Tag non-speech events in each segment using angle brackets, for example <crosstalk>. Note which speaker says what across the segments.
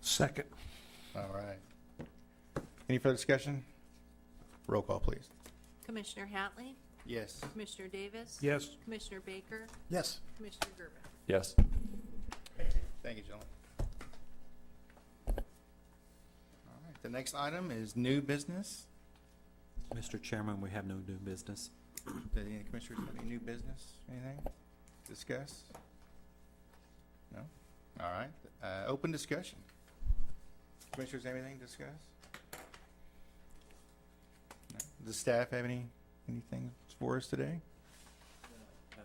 Speaker 1: Second.
Speaker 2: All right. Any further discussion? Roll call, please.
Speaker 3: Commissioner Hatley?
Speaker 2: Yes.
Speaker 3: Commissioner Davis?
Speaker 1: Yes.
Speaker 3: Commissioner Baker?
Speaker 4: Yes.
Speaker 3: Commissioner Gerber?
Speaker 5: Yes.
Speaker 2: Thank you, gentlemen. All right, the next item is new business.
Speaker 6: Mr. Chairman, we have no new business.
Speaker 2: Does any commissioners have any new business, anything to discuss? No? All right, uh, open discussion. Commissioners, have anything to discuss? No? Does staff have any, anything for us today?
Speaker 6: Uh,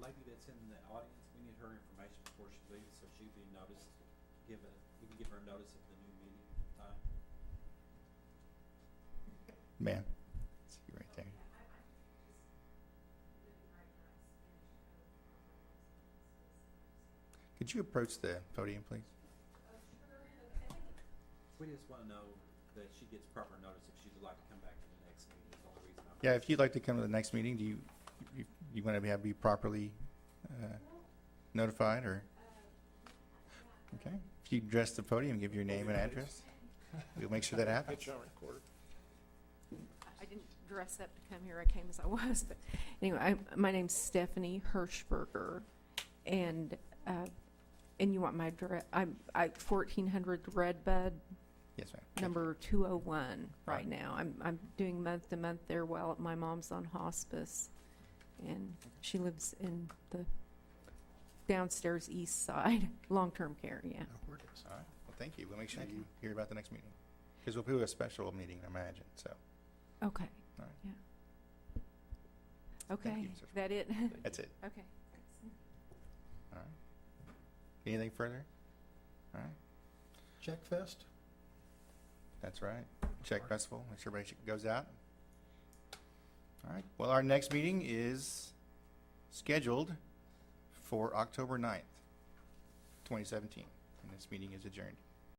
Speaker 6: Lady that's in the audience, we need her information before she leaves, so she'd be noticed, give a, we can give her notice of the new meeting time.
Speaker 2: Man, see you right there. Could you approach the podium, please?
Speaker 6: We just want to know that she gets proper notice if she'd like to come back to the next meeting, is the only reason I'm.
Speaker 2: Yeah, if you'd like to come to the next meeting, do you, you, you want to have be properly uh, notified or? Okay, if you address the podium, give your name and address, we'll make sure that happens.
Speaker 1: Get you on recorder.
Speaker 3: I didn't dress up to come here, I came as I was, but anyway, I- my name's Stephanie Hirschberger, and, uh, and you want my dire, I'm, I, fourteen hundred Redbud,
Speaker 2: Yes, ma'am.
Speaker 3: number two oh one
Speaker 2: Right.
Speaker 3: right now. I'm, I'm doing month to month there while my mom's on hospice, and she lives in the downstairs east side, <laughs> long-term care, yeah.
Speaker 2: All right, well, thank you. We'll make sure you hear about the next meeting. Because we'll do a special meeting, I imagine, so.
Speaker 3: Okay.
Speaker 2: All right.
Speaker 3: Yeah.
Speaker 2: Thank
Speaker 3: Okay,
Speaker 2: you, Mr.
Speaker 3: that it?
Speaker 2: That's it.
Speaker 3: <laughs> Okay.
Speaker 2: All right. Anything further? All right,
Speaker 4: Check Fest?
Speaker 2: that's right. Check festival, make sure everybody goes out. All right, well, our next meeting is scheduled for October ninth, twenty seventeen, and this meeting is adjourned.